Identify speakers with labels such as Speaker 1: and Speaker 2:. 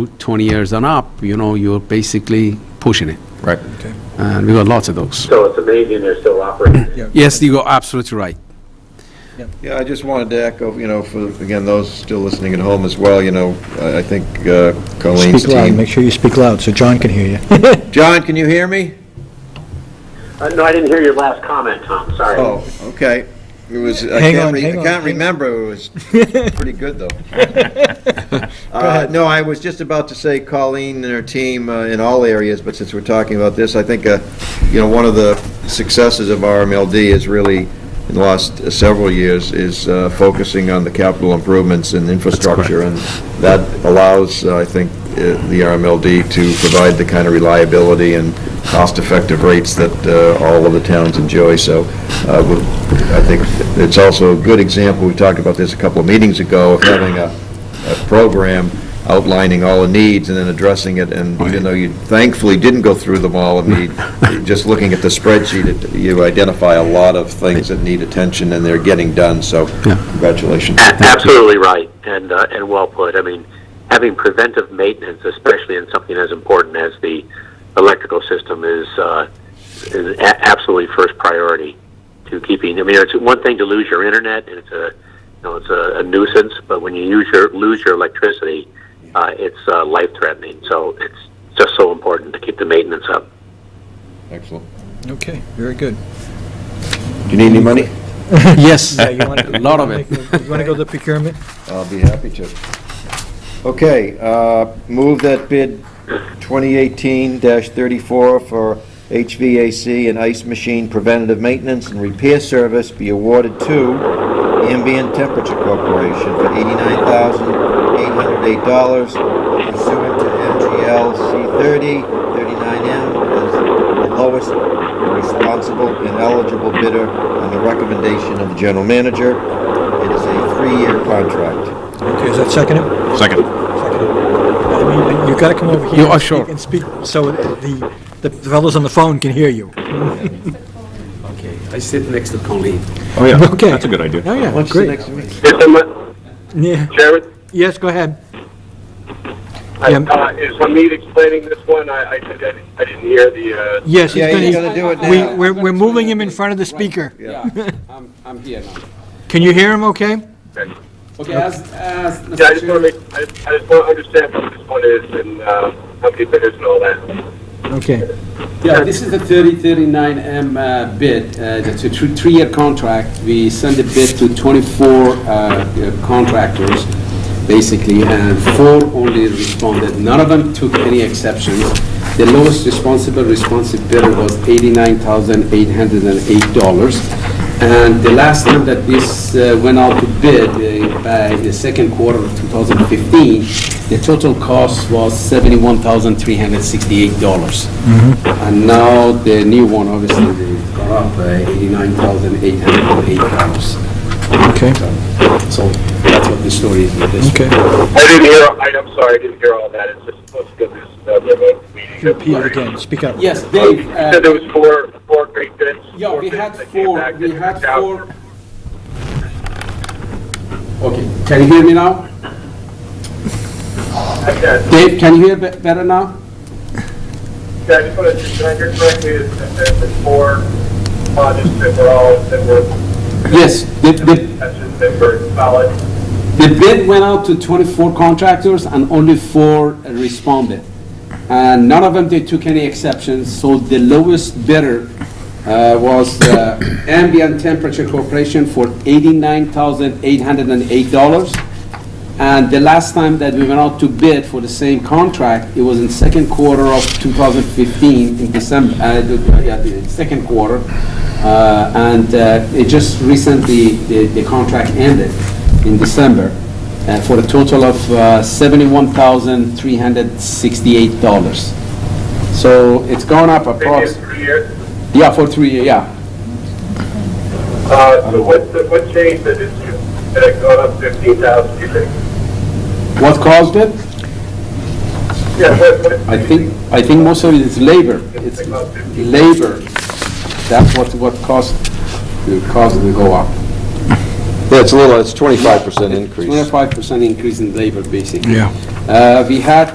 Speaker 1: 20 years and up, you know, you're basically pushing it.
Speaker 2: Right.
Speaker 1: And we got lots of those.
Speaker 3: So it's amazing they're still operating.
Speaker 1: Yes, you are absolutely right.
Speaker 2: Yeah, I just wanted to echo, you know, for, again, those still listening at home as well, you know, I I think uh, Colleen's
Speaker 4: Speak loud,
Speaker 2: team.
Speaker 4: make sure you speak loud so John can hear you.
Speaker 2: John, can you hear me?
Speaker 3: Uh, No, I didn't hear your last comment, Tom, sorry.
Speaker 2: Oh, okay. It was, I
Speaker 4: Hang
Speaker 2: can't,
Speaker 4: on,
Speaker 2: re-
Speaker 4: hang
Speaker 2: I
Speaker 4: on, hang
Speaker 2: can't
Speaker 4: on.
Speaker 2: remember, it was pretty good, though. Uh, No, I was just about to say Colleen and her team uh, in all areas, but since we're talking about this, I think, uh, you know, one of the successes of RMLD is really, in the last uh, several years, is uh, focusing on the capital improvements and infrastructure, and that allows, uh, I think, uh, the RMLD to provide the kind of reliability and cost-effective rates that uh, all of the towns enjoy, so uh, we- I think it's also a good example, we talked about this a couple of meetings ago, of having a a program outlining all the needs and then addressing it, and even though you thankfully didn't go through them all, I mean, just looking at the spreadsheet, it- you identify a lot of things that need attention, and they're getting done, so congratulations.
Speaker 3: A- Absolutely right, and, uh, and well put. I mean, having preventive maintenance, especially in something as important as the electrical system, is, uh, is a- absolutely first priority to keeping. I mean, it's one thing to lose your internet, and it's a, you know, it's a, a nuisance, but when you use your, lose your electricity, uh, it's uh, life threatening. So it's just so important to keep the maintenance up.
Speaker 2: Excellent.
Speaker 4: Okay, very good.
Speaker 2: Do you need any money?
Speaker 1: Yes,
Speaker 4: Yeah, you wanna-
Speaker 1: a lot of it.
Speaker 4: You want to go to procurement?
Speaker 2: I'll be happy to. Okay, uh, move that bid 2018-34 for HVAC and ice machine preventative maintenance and repair service be awarded to Ambient Temperature Corporation for $89,808 pursuant to MGL C30, 39M as the lowest responsible and eligible bidder on the recommendation of the general manager. It is a three-year contract.
Speaker 4: Okay, is that second?
Speaker 5: Second.
Speaker 4: I mean, you got to come over here.
Speaker 1: You
Speaker 4: and
Speaker 1: are
Speaker 4: speak-
Speaker 1: sure.
Speaker 4: And speak, so the, the fellows on the phone can hear you.
Speaker 1: Okay, I sit next to Colleen.
Speaker 5: Oh, yeah.
Speaker 4: Okay.
Speaker 5: That's a good idea.
Speaker 4: Oh, yeah,
Speaker 2: Why don't you sit
Speaker 4: great.
Speaker 2: next to me?
Speaker 3: Mr. Mo-
Speaker 4: Yeah,
Speaker 3: Chairman?
Speaker 4: yes, go ahead.
Speaker 3: I-
Speaker 4: Yeah.
Speaker 3: uh, Is Hamid explaining this one? I, I didn't, I didn't hear the, uh,
Speaker 4: Yes, he's
Speaker 2: Yeah,
Speaker 4: gonna-
Speaker 2: you gotta do it
Speaker 4: we,
Speaker 2: now.
Speaker 4: we're, we're moving him in front of the speaker.
Speaker 1: Yeah, I'm, I'm here now.
Speaker 4: Can you hear him okay?
Speaker 1: Okay, as, as, Mr.
Speaker 3: yeah, I just want to make, I just, I just want to understand what this one is and, uh, how many bidders and all that.
Speaker 4: Okay.
Speaker 1: yeah, this is the 3039M uh, bid. Uh, It's a thr- three-year contract. We send the bid to 24 uh, contractors, basically, and four only responded. None of them took any exceptions. The lowest responsible responsive bidder was $89,808. And the last time that this uh, went out to bid, uh, by the second quarter of 2015, the total cost was $71,368. And now the new one, obviously, they got up uh, by $89,808.
Speaker 4: Okay,
Speaker 1: So that's what the story is with this.
Speaker 4: okay.
Speaker 3: I didn't hear, I, I'm sorry, I didn't hear all that. It's just supposed to go this, uh, remote meeting.
Speaker 4: Repeat it again, speak up.
Speaker 1: Yes,
Speaker 3: Oh, You
Speaker 1: Dave, uh,
Speaker 3: said there was four, four great bids.
Speaker 1: yeah,
Speaker 3: four
Speaker 1: we
Speaker 3: bids
Speaker 1: had
Speaker 3: that came
Speaker 1: four,
Speaker 3: back
Speaker 1: we
Speaker 3: that
Speaker 1: had
Speaker 3: worked out.
Speaker 1: four. Okay, can you hear me now?
Speaker 3: I said-
Speaker 1: Dave, can you hear be- better now?
Speaker 3: Yeah, I just want to, did I hear correctly, that that there's four projects that were all, that were.
Speaker 1: Yes, the- the-
Speaker 3: That's, that were solid.
Speaker 1: The bid went out to 24 contractors and only four responded. And none of them, they took any exceptions, so the lowest bidder uh, was uh, Ambient Temperature Corporation for $89,808. And the last time that we went out to bid for the same contract, it was in second quarter of 2015, in December, uh, the- yeah, the second quarter. Uh, And uh, it just recently, the the contract ended in December uh, for a total of uh, $71,368. So it's gone up
Speaker 3: Maybe it's
Speaker 1: approx,
Speaker 3: three years.
Speaker 1: yeah, for three, years, yeah.
Speaker 3: Uh, so what, what changed that it's, that it gone up fifteen thousand, you think?
Speaker 1: What caused it?
Speaker 3: Yeah, what, what?
Speaker 1: I think, I think most of it is labor. It's labor. That's what, what caused, caused it to go up.
Speaker 2: Yeah, it's a little, it's 25% increase.
Speaker 1: Twenty-five percent increase in labor, basically.
Speaker 4: Yeah.
Speaker 1: Uh, we had